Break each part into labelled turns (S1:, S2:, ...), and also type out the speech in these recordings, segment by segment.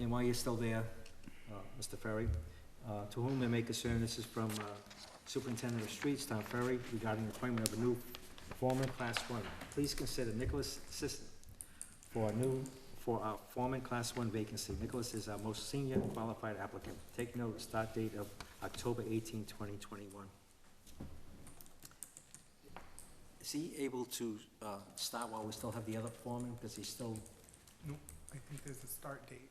S1: And while you're still there, uh, Mr. Ferry, uh, to whom I may concern, this is from uh, Superintendent of Streets, Tom Ferry, regarding appointment of a new foreman class one. Please consider Nicholas Sisson for a new, for our foreman class one vacancy. Nicholas is our most senior qualified applicant. Take note, start date of October 18, 2021. Is he able to uh, start while we still have the other foreman, because he's still,
S2: I think there's a start date.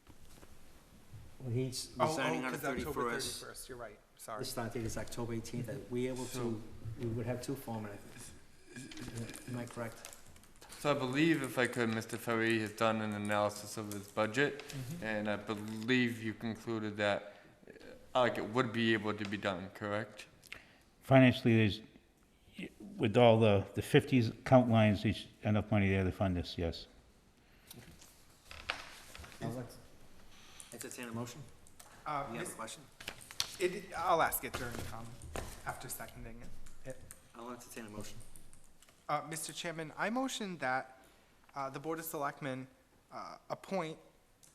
S1: he's
S2: Oh, oh,
S1: resigning on the
S2: 'cause October
S1: thirty-first.
S2: 31st, You're right, sorry.
S1: The start date is October eighteenth, are we able to,
S3: So-
S1: we would have two foremen, I think. am I correct?
S3: So I believe, if I could, Mr. Ferry has done an analysis of his budget, and I believe you concluded that, uh, like, it would be able to be done, correct?
S4: Financially, there's, with all the, the fifties count lines, there's enough money there to fund this, yes.
S1: Now let's Entertain a motion,
S2: Uh,
S1: you have a
S2: Miss-
S1: question?
S2: it- I'll ask it during, um, after seconding it.
S1: I'll entertain a motion.
S2: Uh, Mr. Chairman, I motion that uh, the Board of Selectmen uh, appoint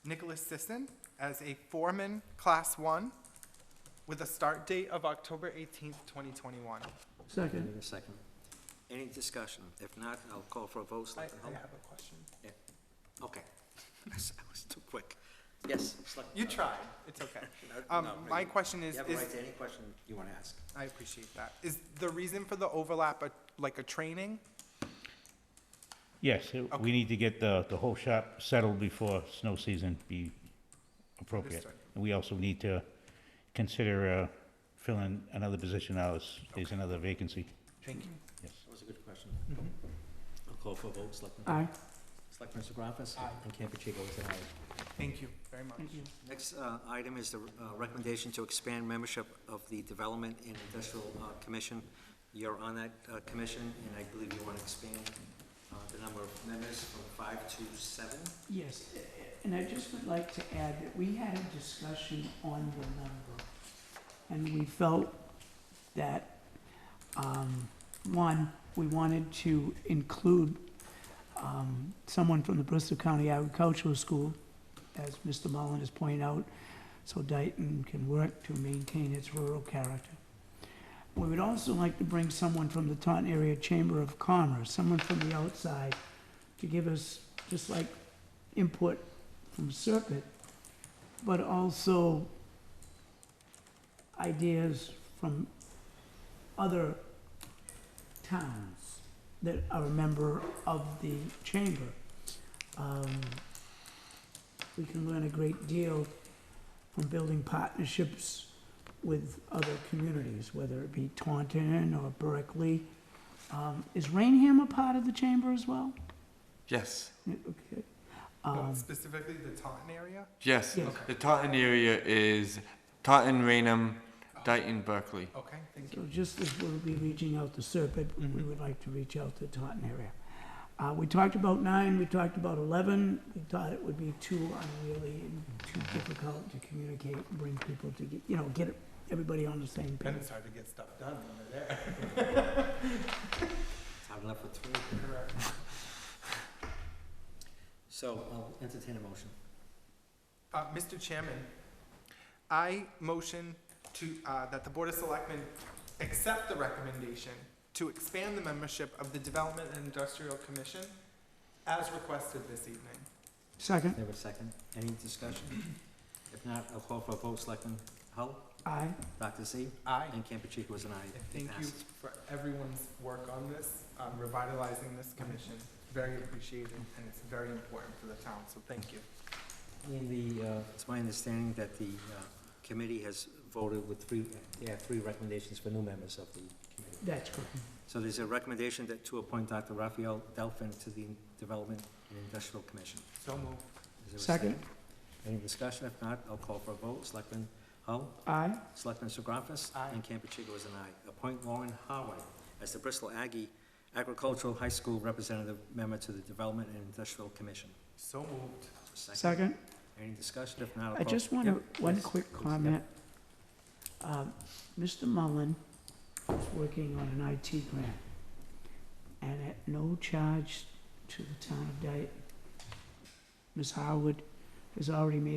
S2: Nicholas Sisson as a foreman, Class 1, with a start date of October 18th, 2021.
S1: I need a second. Any discussion? If not, I'll call for a vote,
S2: I I
S1: Selectman Hull.
S2: have a question.
S1: Okay. I was too quick. Yes, Selectman.
S2: You
S1: uh,
S2: tried, it's okay.
S1: no,
S2: Um,
S1: no,
S2: My
S1: you-
S2: question is,
S1: You have a
S2: is
S1: right to any question you want to ask.
S2: I appreciate that. Is the reason for the overlap a- like a training?
S4: Yes, it-
S2: Okay.
S4: we need to get the, the whole shop settled before snow season be appropriate.
S2: Understood.
S4: And we also need to consider uh, filling another position out, if there's another vacancy,
S2: Thank you.
S4: yes.
S1: That was a good question.
S2: Mm-hmm.
S1: I'll call for a vote, Selectman. Aye. Selectman Segravas? Aye. And Campuchico is an aye.
S2: Thank you very much.
S1: Next uh, item is the uh, recommendation to expand membership of the Development and Industrial uh, Commission. You're on that uh, commission, and I believe you want to expand uh, the number of members from five to seven.
S5: Yes, and I just would like to add that we had a discussion on the number, and we felt that, um, one, we wanted to include, um, someone from the Bristol County Agricultural School, as Mr. Mullen has pointed out, so Dayton can work to maintain its rural character. We would also like to bring someone from the Taunton Area Chamber of Commerce, someone from the outside, to give us, just like input from Serpent, but also ideas from other towns that are a member of the chamber. Um, we can learn a great deal from building partnerships with other communities, whether it be Taunton or Berkeley. Um, is Rainham a part of the chamber as well?
S3: Yes.
S5: Yeah, Okay.
S2: Well,
S5: Um,
S2: Specifically the Taunton area?
S3: Yes,
S5: Yes.
S3: the Taunton area is Taunton, Rainham, Dayton, Berkeley.
S2: Okay, thank
S5: So
S2: you.
S5: just as we'll be reaching out to Serpent, we
S3: Mhm.
S5: would like to reach out to Taunton area. Uh, we talked about nine, we talked about eleven, we thought it would be too unwieldy and too difficult to communicate, and bring people to get, you know, get everybody on the same
S2: And
S5: page.
S2: it's hard to get stuff done when they're there.
S1: I've left with three.
S2: Correct.
S1: So I'll entertain a motion.
S2: Uh, Mr. Chairman, I motion to, uh, that the Board of Selectmen accept the recommendation to expand the membership of the Development and Industrial Commission as requested this evening.
S5: Second,
S1: There was second. Any discussion? If not, I'll call for a vote, Selectman Hull,
S5: aye.
S1: Dr. Z,
S2: Aye.
S1: and Campuchico was an aye.
S2: And
S1: It
S2: thank you
S1: passes.
S2: for everyone's work on this, um, revitalizing this commission. Very appreciated, and it's very important for the town, so thank you.
S1: In the, uh, it's my understanding that the uh, committee has voted with three, yeah, three recommendations for new members of the committee.
S5: That's correct.
S1: So there's a recommendation that to appoint Dr. Raphael Delphin to the Development and Industrial Commission.
S2: So moved.
S1: Is there a
S5: Second.
S1: Any discussion? If not, I'll call for a vote. Selectman Hull?
S5: Aye,
S1: Selectman Segravas?
S2: Aye.
S1: And Campuchico is an aye. Appoint Lauren Howard as the Bristol Aggie Agricultural High School Representative Member to the Development and Industrial Commission.
S2: So moved.
S5: second.
S1: Any discussion? If not, I'll
S5: I
S1: call-
S5: just want to,
S1: Yep,
S5: one
S1: yes,
S5: quick
S1: please, yep.
S5: comment. Um, Mr. Mullen is working on an IT grant, and at no charge to the town of Dayton. Ms. Howard has already made